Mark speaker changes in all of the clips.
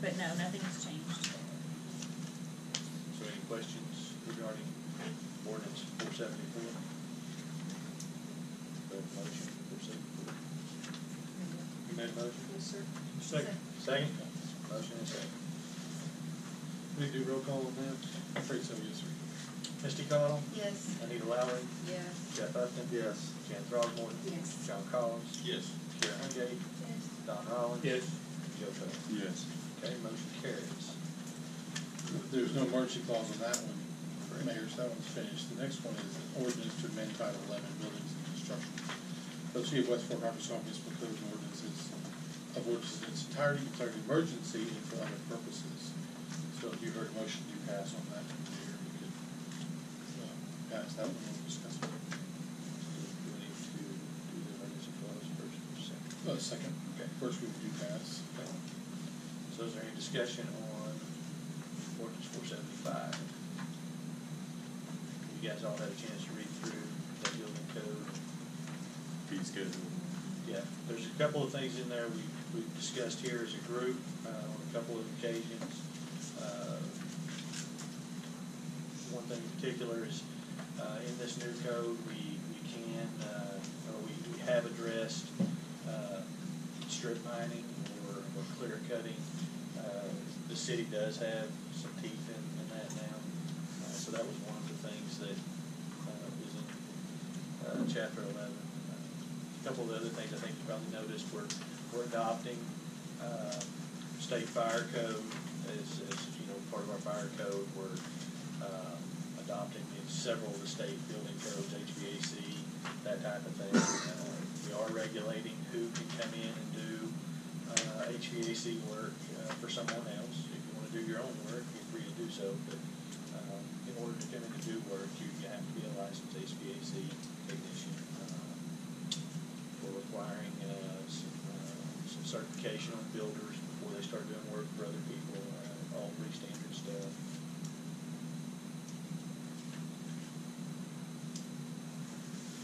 Speaker 1: but no, nothing's changed.
Speaker 2: So any questions regarding ordinance four seventy-four? motion, four seventy-four. You made a motion?
Speaker 3: Yes, sir.
Speaker 2: Second. Second? Motion and second.
Speaker 4: We do roll call on that? I'm afraid so, yes, sir.
Speaker 2: Misty Cottle,
Speaker 3: Yes.
Speaker 2: Anita Lowry,
Speaker 3: Yes.
Speaker 2: Jeff Upton. Yes. Jan Throgmorton.
Speaker 3: Yes.
Speaker 2: John Collins.
Speaker 4: Yes.
Speaker 2: Karen Hungate.
Speaker 3: Yes.
Speaker 2: Don Holland.
Speaker 4: Yes.
Speaker 2: Joe Tover.
Speaker 4: Yes.
Speaker 2: Okay, motion carries.
Speaker 4: There's no emergency clause on that one, Mayor, so that one's finished. The next one is an ordinance to amend Title eleven buildings and construction. The City of West Fork, Arkansas municipal code and ordinances of ordinance in its entirety, declaring emergency and for other purposes. So if you heard a motion to pass on that, Mayor, you could, uh, pass that one, we'll discuss it. Uh,
Speaker 2: Do we need to do the emergency clause first or second?
Speaker 4: Uh, second, okay, first we do pass.
Speaker 2: So is there any discussion on ordinance four seventy-five? You guys all had a chance to read through the building code.
Speaker 5: fee schedule.
Speaker 2: Yeah, there's a couple of things in there we, we've discussed here as a group, uh, on a couple of occasions. Uh, One thing in particular is, uh, in this new code, we, we can, uh, or we, we have addressed, uh, strip mining or, or clear cutting. Uh, The city does have some teeth in, in that now, uh, so that was one of the things that, uh, was in, uh, chapter eleven. A Couple of other things I think you probably noticed, we're, we're adopting, uh, state fire code as, as, you know, part of our fire code. We're, um, adopting in several of the state building codes, HVAC, that type of thing. Uh, We are regulating who can come in and do, uh, HVAC work, uh, for someone else. If you wanna do your own work, you're free to do so, but, um, in order to come in and do work, you you have to be a licensed HVAC technician. Uh, We're requiring uh, some uh, some certification on builders before they start doing work for other people, uh, all pretty standard stuff.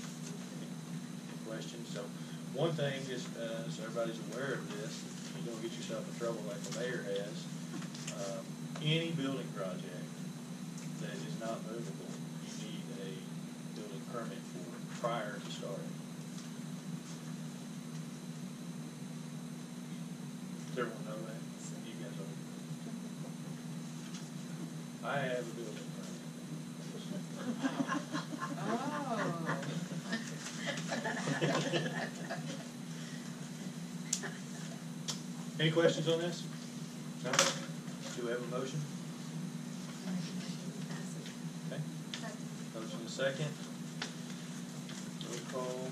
Speaker 2: Any Questions? So, one thing, just uh, so everybody's aware of this, you don't get yourself in trouble like the mayor has. um, Any building project that is not movable, you need a building permit for it prior to starting. Does everyone know that? You guys all? I have a building permit.
Speaker 3: Oh.
Speaker 2: Any questions on this? No? Do we have a motion? Okay, motion is second. Roll call.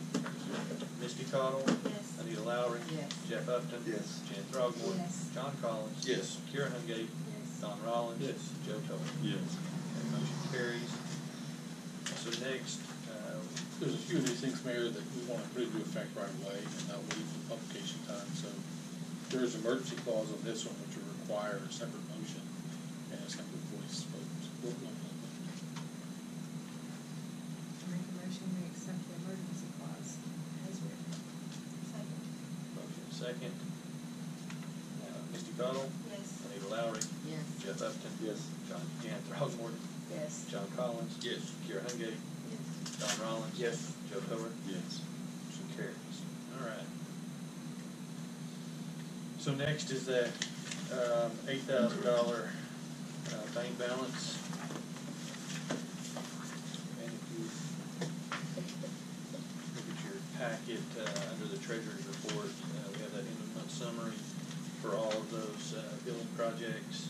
Speaker 2: Misty Cottle.
Speaker 3: Yes.
Speaker 2: Anita Lowry.
Speaker 3: Yes.
Speaker 2: Jeff Upton.
Speaker 5: Yes.
Speaker 2: Jan Throgmorton.
Speaker 3: Yes.
Speaker 2: John Collins.
Speaker 4: Yes.
Speaker 2: Kieran Hungate.
Speaker 3: Yes.
Speaker 2: Don Rollins.
Speaker 4: Yes.
Speaker 2: Joe Tover.
Speaker 5: Yes.
Speaker 2: That motion carries. So next, uh,
Speaker 4: There's a few of these things, Mayor, that we want to put into effect right away and not wait for publication time, so there is an emergency clause on this one which would require a separate motion and a separate voice vote.
Speaker 3: Make a motion, we accept the emergency clause as written. Second.
Speaker 2: motion is second. Uh, Misty Cottle.
Speaker 3: Yes.
Speaker 2: Anita Lowry.
Speaker 3: Yes.
Speaker 2: Jeff Upton.
Speaker 5: Yes.
Speaker 2: John, Jan Throgmorton.
Speaker 3: Yes.
Speaker 2: John Collins.
Speaker 4: Yes.
Speaker 2: Kieran Hungate.
Speaker 3: Yes.
Speaker 2: Don Rollins. Yes. Joe Tover.
Speaker 5: Yes.
Speaker 2: Motion carries. All right. So next is that, um, eight thousand dollar, uh, bank balance. And if you look at your packet, uh, under the treasurer's report, uh, we have that end of month summary for all of those, uh, building projects.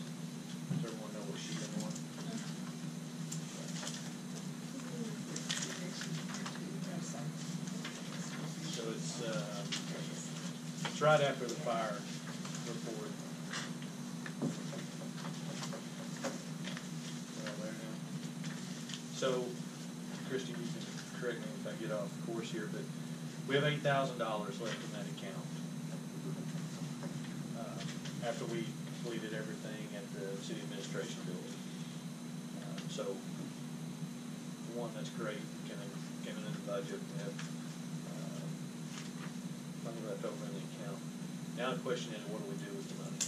Speaker 2: Does everyone know what sheet I'm on? So it's, uh, it's right after the fire report. Well, there now. So, Christie, you can correct me if I get off course here, but we have eight thousand dollars left in that account. Uh, After we completed everything at the city administration building. Uh, So, one, that's great, came in, came in the budget, we have, uh, money left over in the account. Now the question is, what do we do with the money?